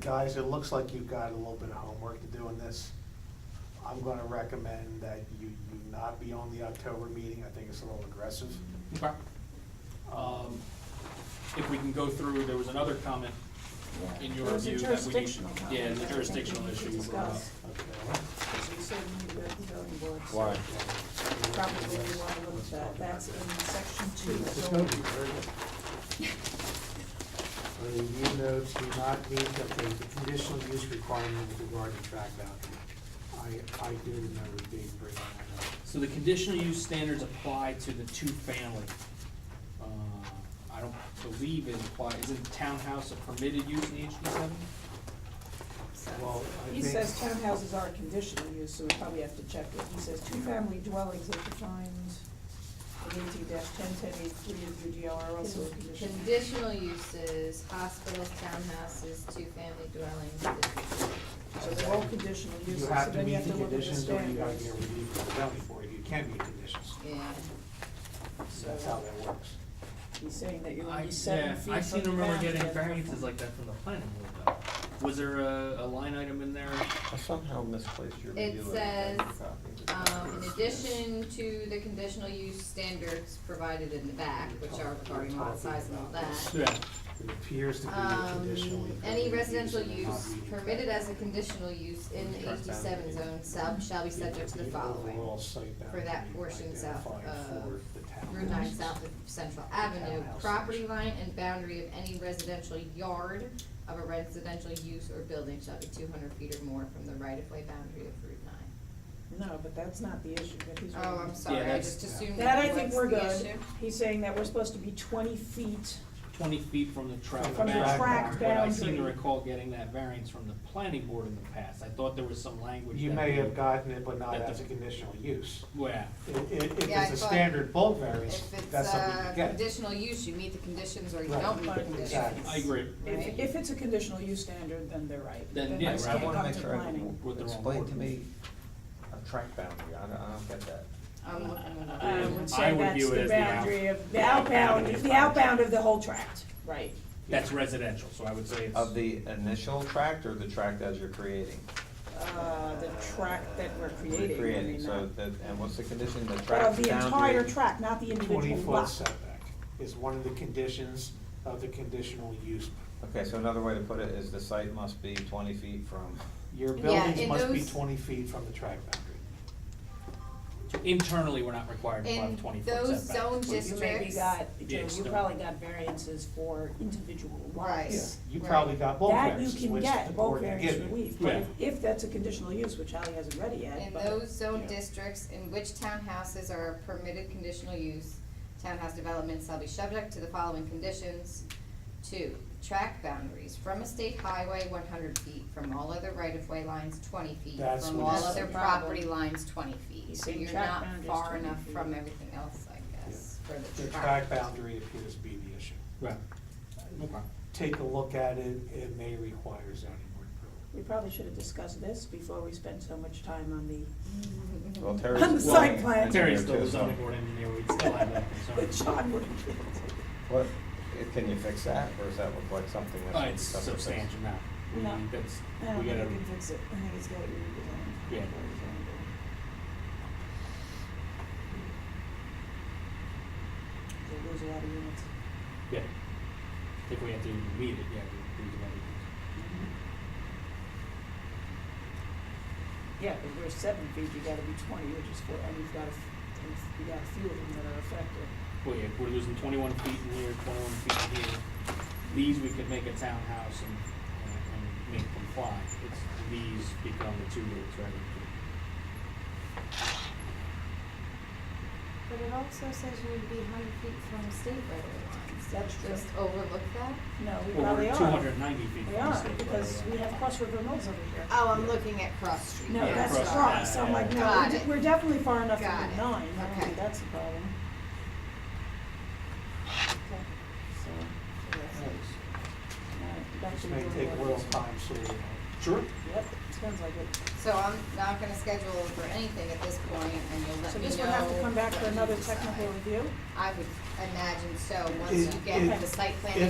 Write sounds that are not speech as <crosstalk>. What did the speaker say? guys, it looks like you've got a little bit of homework to do in this. I'm gonna recommend that you, you not be on the October meeting, I think it's a little aggressive. Okay. Um, If we can go through, there was another comment in your It was a review that we need. jurisdictional comment. Yeah, the I think jurisdictional we issue. should you brought up. discuss. Okay. Because you said you were at the zoning board, so Why? Probably you wanna look at that, that's in section two. It's gonna zoning. be very <laughs> good. Review notes do not meet that the conditional use requirement with regard to track boundary. I, I do remember being bringing that up. So the conditional use standards apply to the two-family. Uh, I don't believe it applies, isn't townhouse a permitted use in HD seven? Well, I He think- says townhouses are conditional use, so we probably have to check it. He says two-family dwellings are defined in eighteen ten ten eight three of your DLR are also a conditional. use. Conditional uses, hospitals, townhouses, two-family dwellings, businesses. So they're all conditional You uses, so have to then you meet have the to look at the conditions or you gotta standards. get relief from the zoning board, you can meet conditions, yeah. so that's how that works. He's saying that you're I, only yeah, seven feet from the I seem to remember ground to getting get a variances front. like that from the planning board though. Was there a, a line item in there? I somehow misplaced your It review. of the paper says, copy. Um, in addition to the conditional use standards provided in the back, which are regarding lot size and all that. Yeah. It appears to be a conditional. Um, any residential use permitted as a conditional use in the HD seven zone shall, shall be subject to the following. for that portion south of Route nine south of Central Avenue, Townhouses. property line and boundary of any residential yard of a residential use or building shall be two hundred feet or more from the right-of-way boundary of Route nine. No, but that's not the issue, that he's. Oh, I'm reading. sorry, I that's- just assumed That I that think was we're the good. issue. He's saying that we're supposed to be twenty feet Twenty feet from the track From the track boundary, but I seem to boundary. recall getting that variance from the planning board in the past. I thought there was some language You that may we- have gotten it, but not that as a the- conditional use. Yeah. I- i- If Yeah, I it's a thought standard bulk variance, If it's that's something a you get. conditional use, you meet the conditions or you Right, don't meet the exactly. conditions. I agree. If, Right. if it's a conditional use standard, then they're right. Then, Then yeah, I right. just I can't wanna come make to sure I planning. With the wrong explain to word. me a track boundary, I don't, I don't get that. I'm looking at I it. would I say would that's view it the as the out- boundary of, the the outbound outbound, of the the- outbound of the whole tract, right. That's residential, so I would say it's. Of the initial tract or the tract as you're creating? Uh, the tract that we're creating, I Recreating, mean, so not. that, and what's the condition, the tract But boundary? of the entire tract, not the individual Twenty-foot lot. setback is one of the conditions of the conditional use. Okay, so another way to put it is the site must be twenty feet from, Your Yeah, buildings and must be those- twenty feet from the track boundary. Internally, we're not required to have In twenty foot setbacks. those zone but- You maybe Districts. got, Yeah, Joe, it's you the- probably got variances for individual Right. Yeah, lots. you Right. probably got bulk That you variances, can which get, the bulk board can variance give you. relief, but Yeah. if, if that's a conditional use, which Hallie hasn't read it yet, In but. those zone yeah. districts in which townhouses are permitted conditional use, townhouse developments shall be subject to the following conditions. Two, track boundaries from a state highway one hundred feet, from all other right-of-way lines twenty feet, That's from what all he's other saying. property lines twenty feet. He's So saying you're track not boundaries far 20 enough feet. from everything else, I guess, for The the track track. boundary appears to be the issue. Right. Okay. Take a look at it, it may require zoning board approval. We probably should have discussed this before we spent so much time on the, <laughs> well, Terry's. On the still site an plan. engineer Terry's still too, the so- zoning board engineer, we'd <laughs> still have that <laughs> but concern. Sean would have it. What, can you fix that, or does that look like something that's? Uh, it's tough to fix? substantial now. We, No. that's, I don't we think gotta, you can fix it, I think it's gotta be redesigned. Yeah. They lose a lot of units. yeah. If we have to even meet it, yeah, we, we can. Yeah, because we're seven feet, you gotta be twenty, which is four, and you've got, a f- you got a few of them that are affected. Well, yeah, we're losing twenty-one feet in here, twenty-one feet in here. These, we could make a townhouse and, and- and make them fly. It's, these become the two units, right? But it also says you need to be hundred feet from state right-of-way lines. That's true. Just overlook that? No, we Well, probably we're are. two hundred and ninety feet from We the are, state. right because away. we have Cross River Mills over here. Oh, I'm looking at Cross Street. No, Yeah, that's across cross, so I'm like, no, we're Got de- it. we're definitely far enough from Got the it. nine, I don't Okay. think that's the problem. So, alright, back to This the may drawing take a board. little time, so, you know, Sure. Yep, sounds like it. So I'm not gonna schedule for anything at this point, and you'll let So me know. this would have to come back when for you another decide. technical review? I would imagine so, once Is- you get is- the site plan is